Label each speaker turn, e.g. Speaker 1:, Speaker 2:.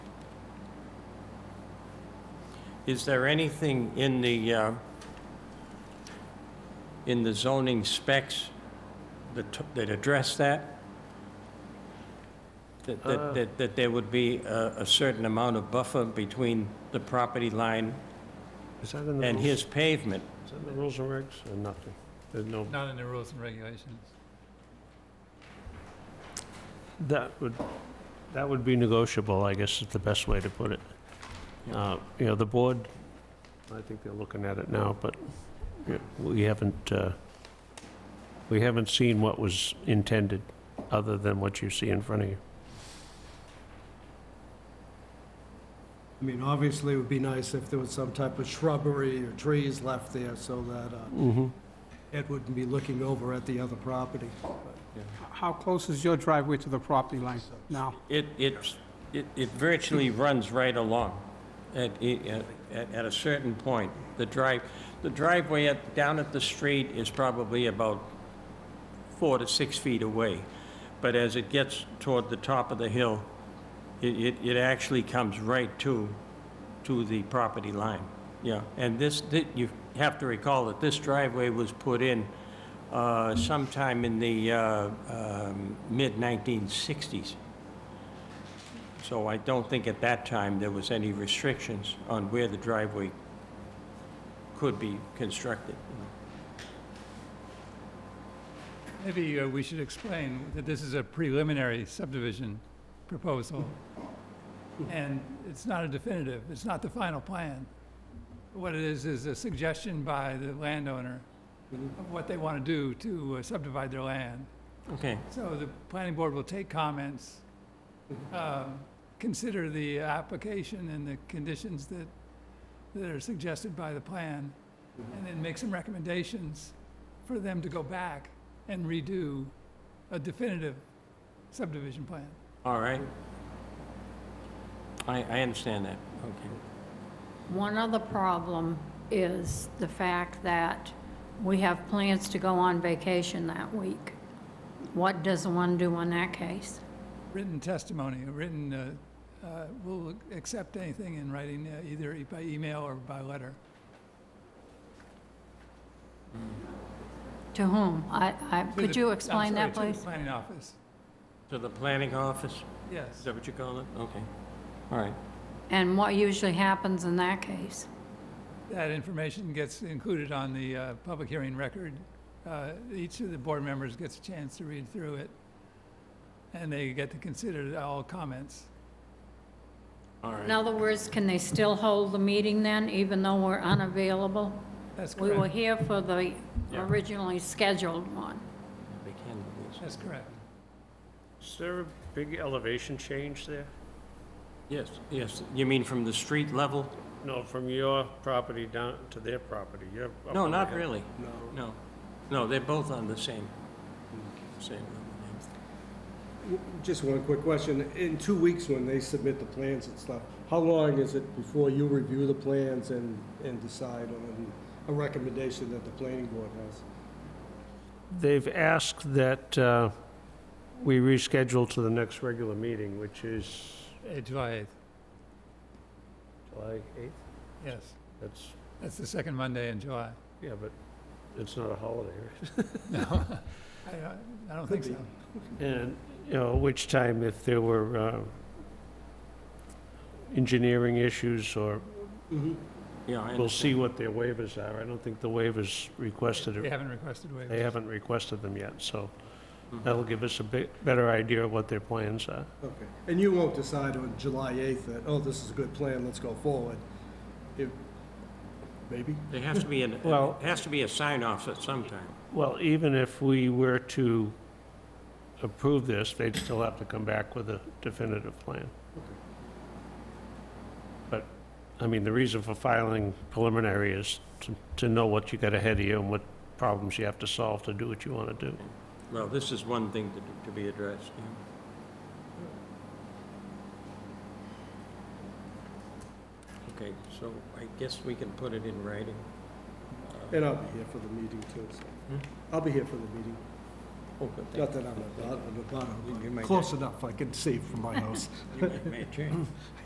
Speaker 1: Is there anything in the, uh, in the zoning specs that t- that address that? That- That that that there would be a a certain amount of buffer between the property line
Speaker 2: Is that in the
Speaker 1: and
Speaker 2: rules?
Speaker 1: his pavement?
Speaker 2: Is that in the rules and regs or nothing? There's no,
Speaker 3: Not in the rules and regulations.
Speaker 2: that would, that would be negotiable, I guess is the best way to put it.
Speaker 1: Yeah.
Speaker 2: Uh, You know, the board, I think they're looking at it now, but yeah, we haven't, uh, we haven't seen what was intended, other than what you see in front of you.
Speaker 4: I mean, obviously, it would be nice if there was some type of shrubbery or trees left there so that uh,
Speaker 2: Mm-hmm.
Speaker 4: Ed wouldn't be looking over at the other property.
Speaker 5: How close is your driveway to the property line now?
Speaker 1: It, it's- it, it virtually runs right along at, at, at- at a certain point. The drive, the driveway at, down at the street is probably about four to six feet away. But as it gets toward the top of the hill, it, it, it actually comes right to, to the property line. Yeah, and this, thi- you have to recall that this driveway was put in uh, sometime in the uh, um, mid-1960s. So I don't think at that time there was any restrictions on where the driveway could be constructed.
Speaker 3: Maybe uh, we should explain that this is a preliminary subdivision proposal, and it's not a definitive, it's not the final plan. What it is, is a suggestion by the landowner of what they want to do to uh, subdivide their land.
Speaker 1: Okay,
Speaker 3: So the planning board will take comments, uh, consider the application and the conditions that, that are suggested by the plan, and then make some recommendations for them to go back and redo a definitive subdivision plan.
Speaker 1: all right. I, I understand that, okay.
Speaker 6: One other problem is the fact that we have plans to go on vacation that week. What does one do in that case?
Speaker 3: Written testimony, a written, uh, uh, we'll accept anything in writing, uh, either e- by email or by letter.
Speaker 6: To whom? I, I,
Speaker 3: To
Speaker 6: could
Speaker 3: the-
Speaker 6: you
Speaker 3: I'm
Speaker 6: explain that,
Speaker 3: sorry, to the
Speaker 6: please?
Speaker 3: planning office,
Speaker 1: To the planning office, is
Speaker 3: yes.
Speaker 1: that what you call it? Okay, all right.
Speaker 6: And what usually happens in that case?
Speaker 3: That information gets included on the uh, public hearing record. Uh, Each of the board members gets a chance to read through it, and they get to consider all comments.
Speaker 1: All right.
Speaker 6: In other words, can they still hold the meeting then, even though we're unavailable?
Speaker 3: That's
Speaker 6: We were
Speaker 3: correct.
Speaker 6: here for the
Speaker 1: Yeah.
Speaker 6: originally scheduled one.
Speaker 1: They can do this.
Speaker 3: That's correct.
Speaker 2: Is there a big elevation change there?
Speaker 1: Yes, yes, you mean from the street level?
Speaker 2: No, from your property down to their property, you're up
Speaker 1: No,
Speaker 2: on the
Speaker 1: not
Speaker 2: hill.
Speaker 1: really, no. No, they're both on the same, same level.
Speaker 4: Just one quick question. In two weeks, when they submit the plans and stuff, how long is it before you review the plans and, and decide on a recommendation that the planning board has?
Speaker 2: They've asked that uh, we reschedule to the next regular meeting, which is
Speaker 3: Uh, July 8th,
Speaker 2: July 8th?
Speaker 3: yes.
Speaker 2: That's,
Speaker 3: That's the second Monday in July.
Speaker 2: yeah, but it's not a holiday, right?
Speaker 3: No, I don't- I don't think so.
Speaker 2: And, you know, which time if there were uh, engineering issues or,
Speaker 4: Mm-hmm.
Speaker 1: Yeah, I
Speaker 2: we'll
Speaker 1: understand.
Speaker 2: see what their waivers are. I don't think the waivers requested,
Speaker 3: They
Speaker 2: are-
Speaker 3: haven't requested waivers.
Speaker 2: they haven't requested them yet, so
Speaker 1: Mhm.
Speaker 2: that'll give us a bit, better idea of what their plans are.
Speaker 4: Okay. And you won't decide on July 8th that, oh, this is a good plan, let's go forward? If, maybe?
Speaker 1: There has to be, an
Speaker 2: Well-
Speaker 1: it has to be a sign-off at some time.
Speaker 2: Well, even if we were to approve this, they'd still have to come back with a definitive plan. But, I mean, the reason for filing preliminary is to, to know what you got ahead of you and what problems you have to solve to do what you want to do.
Speaker 1: Well, this is one thing to, to be addressed, yeah. Okay, so I guess we can put it in writing.
Speaker 4: And I'll be here for the meeting too, so.
Speaker 1: Hmm?
Speaker 4: I'll be here for the meeting.
Speaker 1: Oh, good thing.
Speaker 4: Not that I'm a, I'm a,
Speaker 1: You- you
Speaker 4: bottom,
Speaker 1: might
Speaker 4: but close enough, I can see from my house.
Speaker 1: You might- might change.